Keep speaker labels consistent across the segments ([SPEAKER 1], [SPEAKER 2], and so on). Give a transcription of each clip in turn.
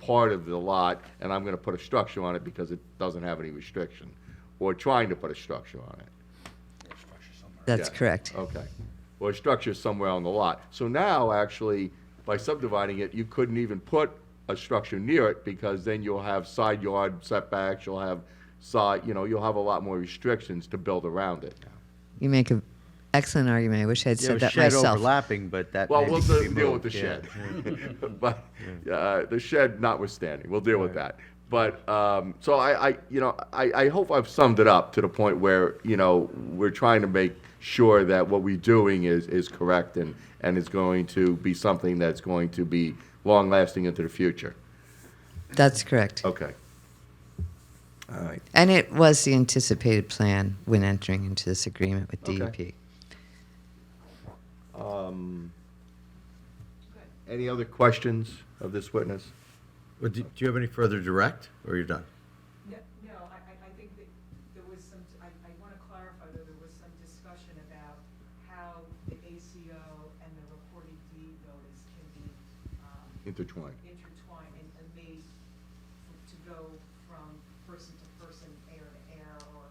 [SPEAKER 1] part of the lot, and I'm gonna put a structure on it because it doesn't have any restriction, or trying to put a structure on it. Yeah.
[SPEAKER 2] That's
[SPEAKER 1] Oh.
[SPEAKER 2] correct.
[SPEAKER 1] Okay. Or a structure somewhere on the lot. So now, actually, by subdividing it, you couldn't even put a structure near it because then you'll have side yard setbacks, you'll have side, you know, you'll have a lot more restrictions to build around it.
[SPEAKER 2] You make an excellent argument. I wish I had
[SPEAKER 3] Yeah, it
[SPEAKER 2] said
[SPEAKER 3] was
[SPEAKER 2] that
[SPEAKER 3] shed
[SPEAKER 2] myself.
[SPEAKER 3] overlapping, but that
[SPEAKER 1] Well,
[SPEAKER 3] maybe
[SPEAKER 1] we'll
[SPEAKER 3] could
[SPEAKER 1] de-
[SPEAKER 3] be
[SPEAKER 1] deal with
[SPEAKER 3] moved,
[SPEAKER 1] the
[SPEAKER 3] yeah.
[SPEAKER 1] shed. But, uh, the shed notwithstanding, we'll deal with that. But, um, so I, I, you know, I, I hope I've summed it up to the point where, you know, we're trying to make sure that what we're doing is, is correct and, and is going to be something that's going to be long-lasting into the future.
[SPEAKER 2] That's correct.
[SPEAKER 1] Okay. All right.
[SPEAKER 2] And it was the anticipated plan when entering into this agreement with E
[SPEAKER 1] Okay.
[SPEAKER 2] DEP.
[SPEAKER 1] Any other questions of this witness?
[SPEAKER 4] Well, do, do you have any further direct, or you're done?
[SPEAKER 5] No, no, I, I, I think that there was some, I, I want to clarify that there was some discussion about how the ACO and the recorded deed notice can be um,
[SPEAKER 1] Intertwined.
[SPEAKER 5] intertwined and and made f- to go from person to person, heir to heir, or.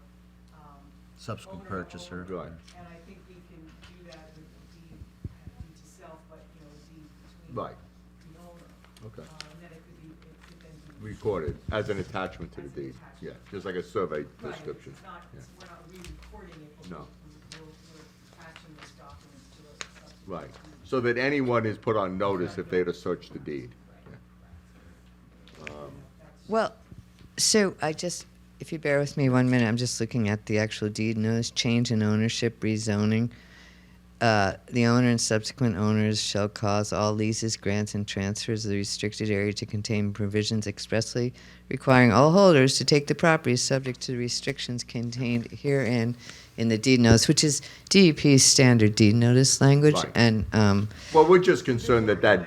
[SPEAKER 5] um,
[SPEAKER 4] Subsequent
[SPEAKER 5] owner to
[SPEAKER 4] purchaser.
[SPEAKER 5] owner.
[SPEAKER 1] Right.
[SPEAKER 5] And I think we can do that with a deed, uh, deed to self, but, you know, a deed between.
[SPEAKER 1] Right.
[SPEAKER 5] The owner.
[SPEAKER 1] Okay.
[SPEAKER 5] Uh, And then it could be, it could then be.
[SPEAKER 1] Recorded as an attachment to the
[SPEAKER 5] As an
[SPEAKER 1] deed. Yeah,
[SPEAKER 5] attachment.
[SPEAKER 1] just like a survey
[SPEAKER 5] Right,
[SPEAKER 1] description.
[SPEAKER 5] It's not,
[SPEAKER 1] Yeah.
[SPEAKER 5] it's, we're not re-recording it, but
[SPEAKER 1] No.
[SPEAKER 5] we're, we're we're attaching this document to uh, a subsequent.
[SPEAKER 1] Right,
[SPEAKER 5] deed.
[SPEAKER 1] so that anyone is put on notice if they'd have searched the deed.
[SPEAKER 2] Well, so I just, if you bear with me one minute, I'm just looking at the actual deed notice change in ownership, rezoning. Uh, the owner and subsequent owners shall cause all leases, grants, and transfers of the restricted area to contain provisions expressly requiring all holders to take the property subject to the restrictions contained herein in the deed notice, which is DEP's standard deed notice language.
[SPEAKER 1] Right.
[SPEAKER 2] And um,
[SPEAKER 1] Well, we're just concerned that that,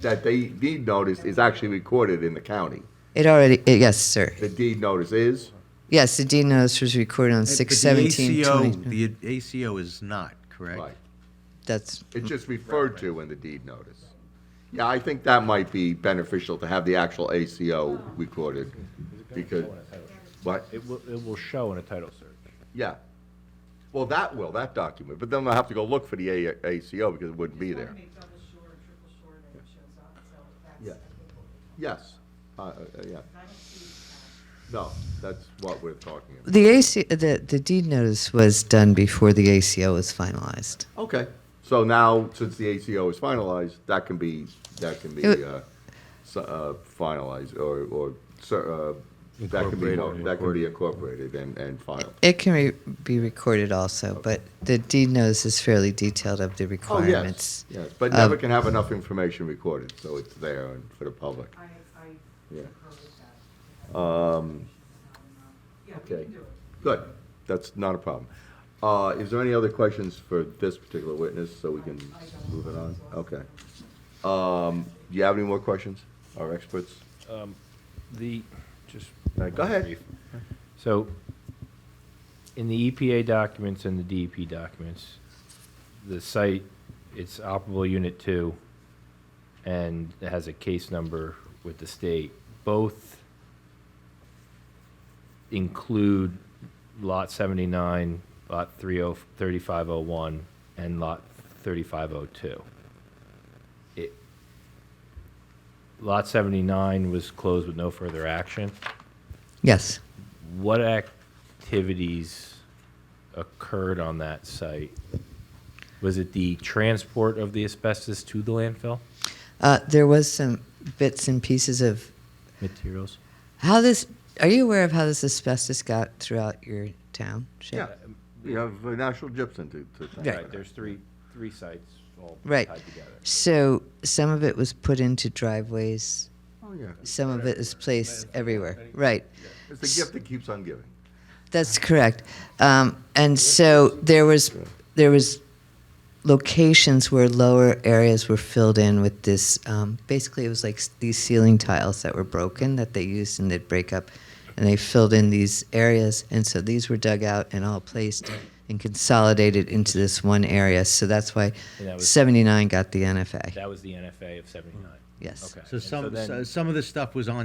[SPEAKER 1] that the deed notice is actually recorded in the county.
[SPEAKER 2] it already, yes, sir.
[SPEAKER 1] The deed notice is,
[SPEAKER 2] Yes, the deed notice was recorded on
[SPEAKER 4] But the
[SPEAKER 2] six seventeen
[SPEAKER 4] ACO
[SPEAKER 2] twenty.
[SPEAKER 4] The ACO is not, correct?
[SPEAKER 1] right,
[SPEAKER 2] That's
[SPEAKER 1] it's just referred to in the deed notice. Yeah, I think that might be beneficial to have the actual ACO recorded, because, what,
[SPEAKER 6] It will, it will show in a title search.
[SPEAKER 1] yeah. Well, that will, that document, but then I'll have to go look for the A- ACO because it wouldn't be
[SPEAKER 5] Just
[SPEAKER 1] there.
[SPEAKER 5] wanna make double sure, triple sure that it shows up, so that's,
[SPEAKER 1] Yeah.
[SPEAKER 5] I think, what we're talking
[SPEAKER 1] Yes, uh, uh, yeah,
[SPEAKER 5] about. I don't see, uh,
[SPEAKER 1] no, that's what we're talking about.
[SPEAKER 2] the AC. The the deed notice was done before the ACO was finalized.
[SPEAKER 1] Okay, so now, since the ACO is finalized, that can be, that can be,
[SPEAKER 2] It-
[SPEAKER 1] uh, s- uh, finalized, or, or, cer- uh, that can be,
[SPEAKER 4] Incorporated.
[SPEAKER 1] that can be incorporated and, and filed.
[SPEAKER 2] It can re- be recorded also, but the deed notice is fairly detailed of the
[SPEAKER 1] Oh, yes,
[SPEAKER 2] requirements. Um,
[SPEAKER 1] yes, but
[SPEAKER 2] of-
[SPEAKER 1] never can have enough information recorded, so it's there and for the public.
[SPEAKER 2] Uh,
[SPEAKER 5] I, I
[SPEAKER 1] Yeah.
[SPEAKER 5] concur with that.
[SPEAKER 1] Um,
[SPEAKER 5] Yeah, we
[SPEAKER 1] okay.
[SPEAKER 5] can do it.
[SPEAKER 1] Good, that's not a problem. Uh, is there any other questions for this particular witness, so we can move it on? Okay. Um, do you have any more questions, our experts?
[SPEAKER 6] Um, The, just.
[SPEAKER 1] Uh, Go ahead.
[SPEAKER 6] So, in the EPA documents and the DEP documents, the site, it's operable unit two, and it has a case number with the state. Both include lot seventy-nine, lot three oh, thirty-five oh one, and lot thirty-five oh two. It, lot seventy-nine was closed with no further action
[SPEAKER 2] Yes.
[SPEAKER 6] what activities occurred on that site? Was it the transport of the asbestos to the landfill
[SPEAKER 2] Uh, there was some bits and pieces of
[SPEAKER 6] materials?
[SPEAKER 2] how this. Are you aware of how this asbestos got throughout your town? Shane?
[SPEAKER 1] Yeah, we have uh, National Gypsum to, to thank.
[SPEAKER 2] Right.
[SPEAKER 1] for that.
[SPEAKER 6] there's three, three sites all
[SPEAKER 2] Right.
[SPEAKER 6] tied together.
[SPEAKER 2] So some of it was put into driveways.
[SPEAKER 1] Oh, yeah.
[SPEAKER 2] Some of it is placed everywhere. Right.
[SPEAKER 1] It's the gift that keeps on giving.
[SPEAKER 2] That's correct. Um, and so there was there was locations where lower areas were filled in with this. Um, basically, it was like s- these ceiling tiles that were broken that they used and they'd break up, and they filled in these areas. And so these were dug out and all placed and consolidated into this one area. So that's why
[SPEAKER 6] And that was-
[SPEAKER 2] 79 got the NFA.
[SPEAKER 6] That was the NFA of seventy-nine.
[SPEAKER 2] yes.
[SPEAKER 6] Okay.
[SPEAKER 4] So
[SPEAKER 6] And
[SPEAKER 4] some,
[SPEAKER 6] then-
[SPEAKER 4] so some of the stuff was on